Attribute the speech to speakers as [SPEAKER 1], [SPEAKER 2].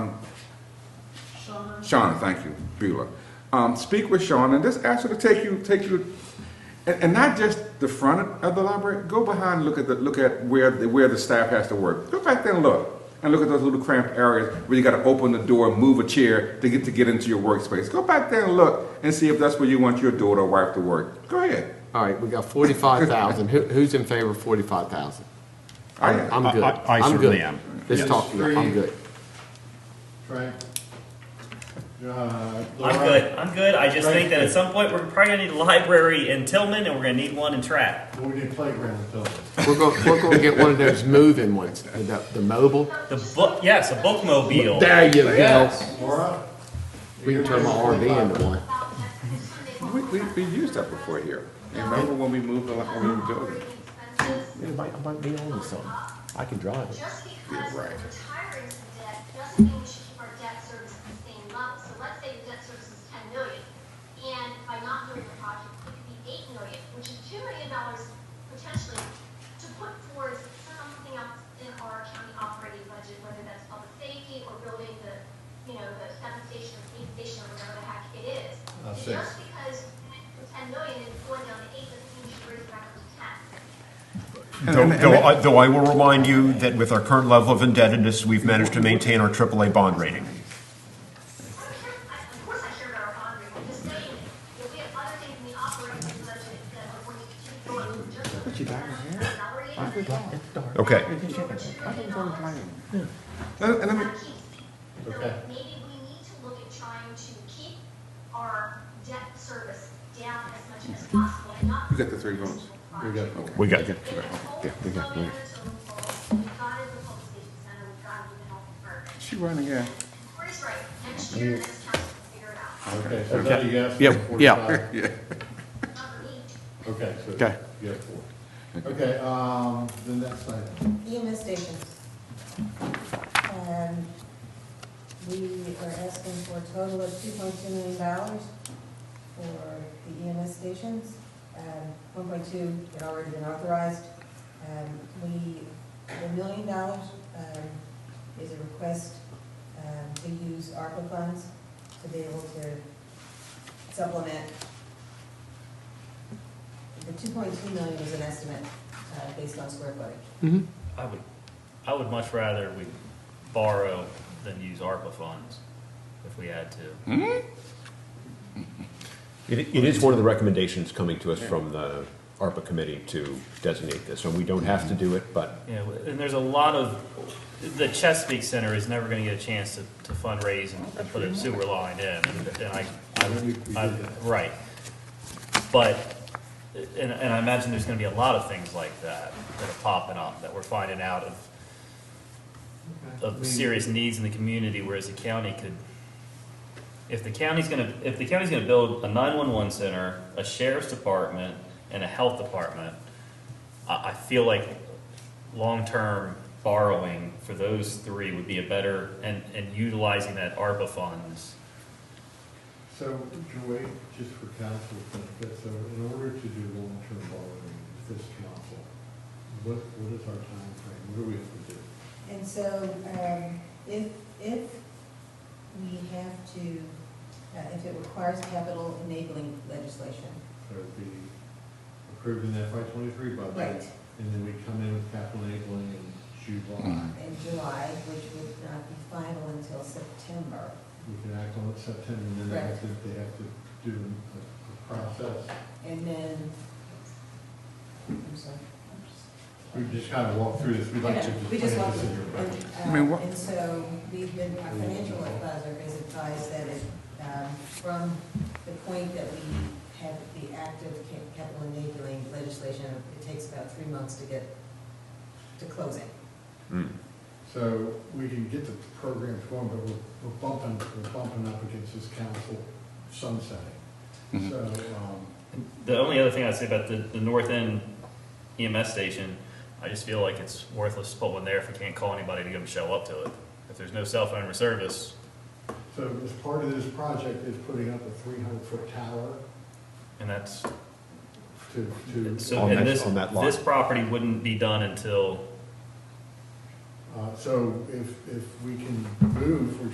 [SPEAKER 1] Shauna, thank you, Beulah. Um, speak with Shauna and just ask her to take you, take you, and, and not just the front of the library, go behind, and look at the, look at where, the where the staff has to work. Go back there and look, and look at those little cramped areas where you gotta open the door, move a chair to get, to get into your workspace. Go back there and look and see if that's where you want your daughter or wife to work. Go ahead.
[SPEAKER 2] All right, we got forty-five thousand. Who, who's in favor of forty-five thousand?
[SPEAKER 1] I am.
[SPEAKER 2] I'm good.
[SPEAKER 3] I- I- I
[SPEAKER 2] I'm
[SPEAKER 3] certainly
[SPEAKER 2] good.
[SPEAKER 3] am.
[SPEAKER 2] Let's
[SPEAKER 3] Yes.
[SPEAKER 2] talk, about it. I'm good.
[SPEAKER 4] Frank? Uh,
[SPEAKER 5] I'm
[SPEAKER 4] Laura?
[SPEAKER 5] good. I'm good. I just think that at some point we're probably gonna need a library in Tillman and we're gonna need one in Trapp.
[SPEAKER 4] Well, we need a playground, so.
[SPEAKER 2] We're gonna, we're gonna get one of those moving ones, the, the mobile.
[SPEAKER 5] The book, yes, a bookmobile.
[SPEAKER 2] There you go.
[SPEAKER 4] Laura?
[SPEAKER 2] We can turn my RV into one.
[SPEAKER 1] We, we, we used that before here. And remember when we moved, the- when we moved the building?
[SPEAKER 2] I might, I might be on to something. I can drive it.
[SPEAKER 6] Just because
[SPEAKER 1] Yeah,
[SPEAKER 6] we're
[SPEAKER 1] right.
[SPEAKER 6] retiring some debt, doesn't mean we should keep our debt service the same level. So let's say the debt service is ten million, and by not doing the project, it could be eight million, which is two million dollars potentially to put towards something else in our county operating budget, whether that's public safety or building the, you know, the seven station or police station or whatever the heck it is.
[SPEAKER 4] I see.
[SPEAKER 6] Just because ten million is going down to eight doesn't mean we should raise it back up to ten.
[SPEAKER 3] Though, though I- though I will remind you that with our current level of indebtedness, we've managed to maintain our AAA bond rating.
[SPEAKER 6] Of course I care about our bond rate, I'm just saying, that we have other things in the operating budget that are going to keep going, just. But you got your
[SPEAKER 3] Okay.
[SPEAKER 1] And, and let me,
[SPEAKER 6] So
[SPEAKER 4] Okay.
[SPEAKER 6] maybe we need to look at trying to keep our debt service down as much as possible and not.
[SPEAKER 1] you got the three votes.
[SPEAKER 4] We got, okay.
[SPEAKER 3] We got it.
[SPEAKER 6] Yeah, we got. We've got it in the public safety center, we've got it in the health department.
[SPEAKER 1] She running, yeah.
[SPEAKER 6] Corey's right, next year, next council will figure it out.
[SPEAKER 4] Okay, so now you asked
[SPEAKER 7] Yeah,
[SPEAKER 4] for
[SPEAKER 7] yeah.
[SPEAKER 4] forty-five.
[SPEAKER 6] Not me.
[SPEAKER 4] Okay, so.
[SPEAKER 7] Okay.
[SPEAKER 4] You have four. Okay, um, the next item.
[SPEAKER 8] EMS stations. And we are asking for a total of two point two million dollars for the EMS stations. And one point two had already been authorized. And we, the million dollars, um, is a request, um, to use ARPA funds to be able to supplement. The two point two million is an estimate, uh, based on square footage.
[SPEAKER 5] I would, I would much rather we borrow than use ARPA funds if we had
[SPEAKER 4] Hmm?
[SPEAKER 5] to.
[SPEAKER 3] It it is one of the recommendations coming to us from the ARPA committee to designate this, and we don't have to do it, but
[SPEAKER 5] You know, and there's a lot of, the Chesapeake Center is never gonna get a chance to, to fundraise and, and put a sewer line in. And I,
[SPEAKER 4] We- we did
[SPEAKER 5] I,
[SPEAKER 4] that.
[SPEAKER 5] right. But, and, and I imagine there's gonna be a lot of things like that that are popping up that we're finding out of
[SPEAKER 4] I mean,
[SPEAKER 5] of serious needs in the community, whereas the county could, if the county's gonna, if the county's gonna build a nine-one-one center, a sheriff's department, and a health department, I, I feel like long-term borrowing for those three would be a better, and, and utilizing that ARPA funds.
[SPEAKER 4] So, Joy, just for council benefit, so in order to do long-term borrowing, with this council, what, what is our timeframe? What do we have to do?
[SPEAKER 8] And so, um, if, if we have to, uh, if it requires capital enabling legislation.
[SPEAKER 4] So it'd be approving the FY twenty-three budget.
[SPEAKER 8] Right.
[SPEAKER 4] And then we come in with capital enabling in
[SPEAKER 7] Mm-hmm.
[SPEAKER 4] July.
[SPEAKER 8] In July, which would not be final until September.
[SPEAKER 4] We can act on it September, and then they have to, they have to do a a process.
[SPEAKER 8] And then, I'm sorry. I'm just-
[SPEAKER 4] We just kind of walk through this, we'd like to
[SPEAKER 8] Okay,
[SPEAKER 4] just
[SPEAKER 8] We just
[SPEAKER 4] plan this
[SPEAKER 8] want to,
[SPEAKER 4] in your budget.
[SPEAKER 1] I mean,
[SPEAKER 8] and, uh,
[SPEAKER 1] what-
[SPEAKER 8] and so we've been, our financial advisor has advised that it, um, from the point that we have the active ca- capital enabling legislation, it takes about three months to get to closing.
[SPEAKER 4] So we can get the programs going, but we're we're bumping, we're bumping up against this council
[SPEAKER 5] Mm-hmm.
[SPEAKER 4] sunsetting. So, um,
[SPEAKER 5] The only other thing I'd say about the, the North End EMS station, I just feel like it's worthless to put one there if we can't call anybody to go and show up to it. If there's no cell phone or service,
[SPEAKER 4] so as part of this project is putting up a three hundred foot tower
[SPEAKER 5] and that's
[SPEAKER 4] to, to,
[SPEAKER 5] So,
[SPEAKER 3] On
[SPEAKER 5] and
[SPEAKER 3] that-
[SPEAKER 5] this,
[SPEAKER 3] on that lot.
[SPEAKER 5] this property wouldn't be done until
[SPEAKER 4] uh, so if, if we can move, we're